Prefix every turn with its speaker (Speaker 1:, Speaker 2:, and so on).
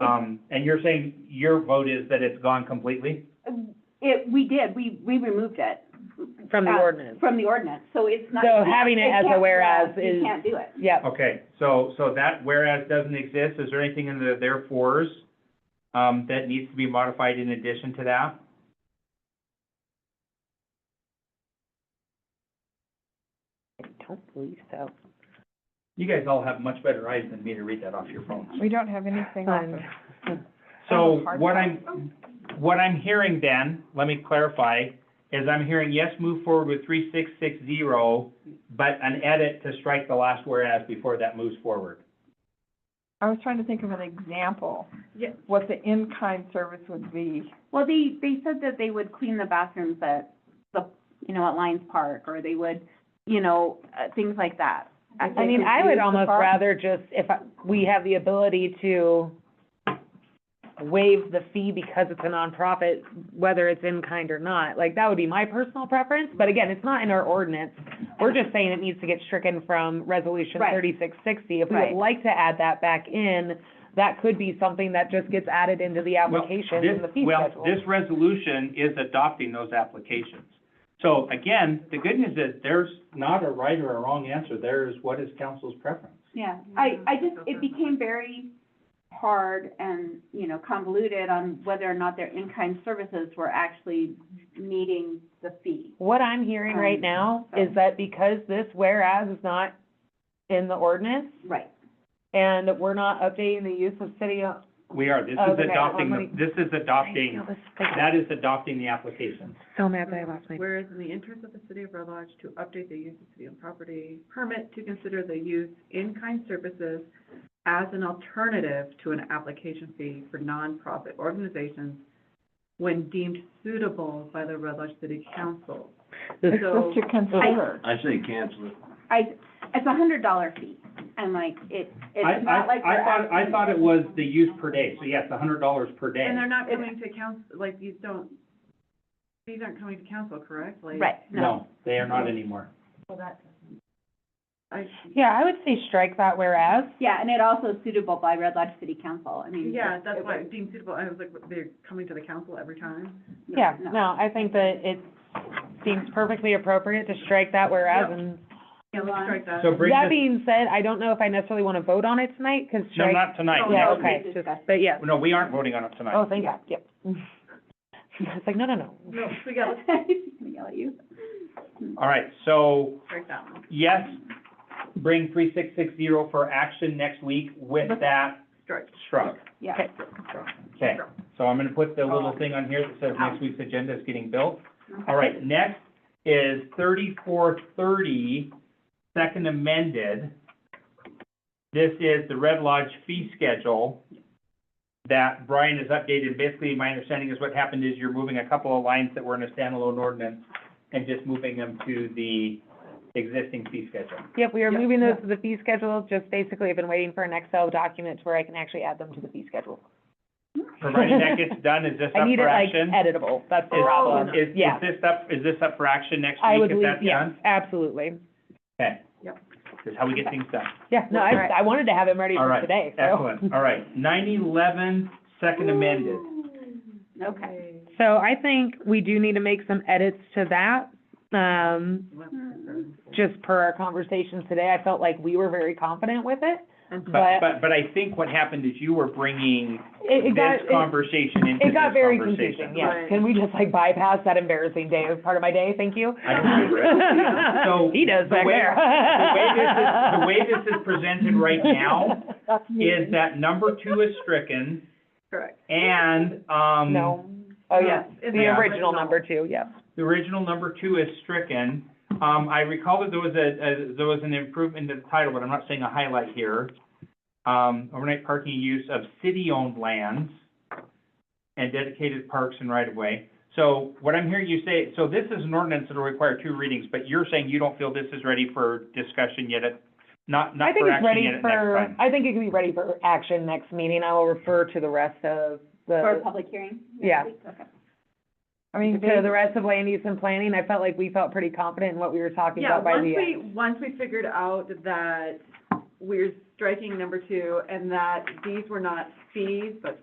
Speaker 1: Um, and you're saying your vote is that it's gone completely?
Speaker 2: It, we did, we, we removed it
Speaker 3: from the
Speaker 2: Uh,
Speaker 3: ordinance.
Speaker 2: from the ordinance, so it's not.
Speaker 3: So having it as a
Speaker 2: can't-
Speaker 3: whereas
Speaker 2: You
Speaker 3: is-
Speaker 2: can't do it.
Speaker 3: Yep,
Speaker 1: Okay, so, so that whereas doesn't exist, is there anything in the therefores, um, that needs to be modified in addition to that?
Speaker 3: I don't believe so.
Speaker 1: You guys all have much better eyes than me to read that off your phones.
Speaker 4: We don't have anything off of.
Speaker 3: Um,
Speaker 1: So
Speaker 4: Hard
Speaker 1: what I'm, what I'm hearing then, let me clarify, is I'm hearing yes, move forward with three six six zero, but an edit to strike the last whereas before that moves forward.
Speaker 4: I was trying to think of an example,
Speaker 2: Yeah.
Speaker 4: what the in-kind service would be.
Speaker 2: Well, they, they said that they would clean the bathrooms at the, you know, at Lions Park, or they would, you know, uh, things like that.
Speaker 3: I mean, I
Speaker 4: use
Speaker 3: would
Speaker 4: the
Speaker 3: almost
Speaker 4: park.
Speaker 3: rather just, if I- we have the ability to waive the fee because it's a nonprofit, whether it's in kind or not, like, that would be my personal preference, but again, it's not in our ordinance. We're just saying it needs to get stricken from resolution
Speaker 2: Right.
Speaker 3: thirty-six sixty. If we
Speaker 2: Right.
Speaker 3: would like to add that back in, that could be something that just gets added into the
Speaker 1: Well,
Speaker 3: application
Speaker 1: this-
Speaker 3: and the fee schedule.
Speaker 1: Well, this resolution is adopting those applications. So again, the good news is there's not a right or a wrong answer. There is what is council's preference.
Speaker 2: Yeah, I, I just, it became very hard and, you know, convoluted on whether or not their in-kind services were actually meeting the fee.
Speaker 3: What I'm hearing right
Speaker 2: Um,
Speaker 3: now
Speaker 2: so-
Speaker 3: is that because this whereas is not in the ordinance,
Speaker 2: Right.
Speaker 3: and we're not updating the use of city.
Speaker 1: We are, this
Speaker 3: Oh,
Speaker 1: is
Speaker 3: okay,
Speaker 1: adopting,
Speaker 3: well,
Speaker 1: the- this is adopting, that is adopting the application.
Speaker 3: So mad that I lost my.
Speaker 5: Whereas in the interest of the city of Red Lodge to update the use of city-owned property permit to consider the use in-kind services as an alternative to an application fee for nonprofit organizations when deemed suitable by the Red Lodge City Council.
Speaker 4: It's
Speaker 5: So-
Speaker 4: just to consider.
Speaker 6: I say cancel it.
Speaker 2: I, it's a hundred dollar fee, and like, it,
Speaker 1: I,
Speaker 2: it's not
Speaker 1: I,
Speaker 2: like we're
Speaker 1: I thought, I
Speaker 2: asking-
Speaker 1: thought it was the use per day, so yes, a hundred dollars per day.
Speaker 5: And they're not
Speaker 2: It-
Speaker 5: coming to council, like, these don't, these aren't coming to council, correct? Like,
Speaker 2: Right, no.
Speaker 1: No, they are not anymore.
Speaker 5: I,
Speaker 3: Yeah, I would say strike that whereas.
Speaker 2: Yeah, and it also suitable by Red Lodge City Council, I mean.
Speaker 5: yeah,
Speaker 2: it
Speaker 5: that's why
Speaker 2: was-
Speaker 5: deemed suitable, I was like, they're coming to the council every time?
Speaker 2: no,
Speaker 3: Yeah, no, I think that it seems perfectly appropriate to strike that whereas and.
Speaker 5: Yeah, let's strike that.
Speaker 1: So bring
Speaker 3: That
Speaker 1: this,
Speaker 3: being said, I don't know if I necessarily want to vote on it tonight, because
Speaker 1: no,
Speaker 3: strike,
Speaker 1: not tonight,
Speaker 5: Oh, No,
Speaker 3: yeah,
Speaker 1: next
Speaker 3: Oh, okay,
Speaker 1: week.
Speaker 3: just, but yeah.
Speaker 1: No, we aren't voting on it tonight.
Speaker 3: Oh, thank God, yep. It's like, no, no, no.
Speaker 5: No, we gotta
Speaker 2: She's gonna yell at you.
Speaker 1: All right, so
Speaker 5: strike that one,
Speaker 1: yes, bring three six six zero for action next week with that
Speaker 5: strike.
Speaker 1: struck.
Speaker 2: Yeah.
Speaker 3: Okay.
Speaker 1: Okay, so I'm gonna put the little thing on here that says next week's agenda is getting built. All right, next is thirty-four thirty, second amended. This is the Red Lodge fee schedule that Brian has updated. Basically, my understanding is what happened is you're moving a couple of lines that were in a standalone ordinance and just moving them to the existing fee schedule.
Speaker 3: Yep, we are
Speaker 5: Yep,
Speaker 3: moving those to the fee schedule, just basically I've been waiting for an Excel document to where I can actually add them to the fee schedule.
Speaker 1: Provided that gets done, is this
Speaker 3: I
Speaker 1: up
Speaker 3: need it
Speaker 1: for
Speaker 3: like
Speaker 1: action?
Speaker 3: editable, that's the
Speaker 5: Oh,
Speaker 3: problem.
Speaker 1: Is, is
Speaker 3: Yeah.
Speaker 1: this up, is this up for action next
Speaker 3: I
Speaker 1: week
Speaker 3: would
Speaker 1: if
Speaker 3: leave,
Speaker 1: that's
Speaker 3: yeah,
Speaker 1: done?
Speaker 3: absolutely.
Speaker 1: Okay.
Speaker 5: Yep.
Speaker 1: This is how we get things done.
Speaker 3: Yeah, no, I,
Speaker 4: Alright.
Speaker 3: I wanted to have them ready
Speaker 1: All
Speaker 3: for
Speaker 1: right,
Speaker 3: today, so.
Speaker 1: Excellent, all right. Nine eleven, second amended.
Speaker 2: Okay.
Speaker 3: So I think we do need to make some edits to that, um, just per our conversations today. I felt like we were very confident with it.
Speaker 1: But,
Speaker 3: But-
Speaker 1: Mm-hmm. but, but I think what happened is you were bringing
Speaker 3: It, it got,
Speaker 1: this
Speaker 3: it,
Speaker 1: conversation into
Speaker 3: it
Speaker 1: this
Speaker 3: got very
Speaker 1: conversation.
Speaker 3: confusing, yeah.
Speaker 5: Right.
Speaker 3: Can we just like bypass that embarrassing day as part of my day? Thank you.
Speaker 1: I can agree. So,
Speaker 3: He does
Speaker 1: the
Speaker 3: back
Speaker 1: way-
Speaker 3: there.
Speaker 1: The way this is, the way this is presented right now um, is that number two is stricken
Speaker 5: Correct.
Speaker 1: and, um,
Speaker 3: No, oh, yeah,
Speaker 5: Yes, in
Speaker 3: the original number two, yeah.
Speaker 1: the original number two is stricken. Um, I recall that there was a, a, there was an improvement to the title, but I'm not saying a highlight here. Um, overnight parking use of city-owned lands and dedicated parks and right-of-way. So what I'm hearing you say, so this is an ordinance that'll require two readings, but you're saying you don't feel this is ready for discussion yet at, not,
Speaker 3: I
Speaker 1: not
Speaker 3: think
Speaker 1: for
Speaker 3: it's
Speaker 1: action
Speaker 3: ready
Speaker 1: yet at next
Speaker 3: for,
Speaker 1: time.
Speaker 3: I think it can be ready for action next meeting. I will refer to the rest of
Speaker 2: For a
Speaker 3: the,
Speaker 2: public hearing? next
Speaker 3: Yeah.
Speaker 2: week? Okay.
Speaker 4: I mean,
Speaker 3: to the
Speaker 4: they,
Speaker 3: rest of land use and planning. I felt like we felt pretty confident in what we were talking
Speaker 5: Yeah,
Speaker 3: about by
Speaker 5: once
Speaker 3: the
Speaker 5: we,
Speaker 3: end.
Speaker 5: once we figured out that we're striking number two and that these were not fees, but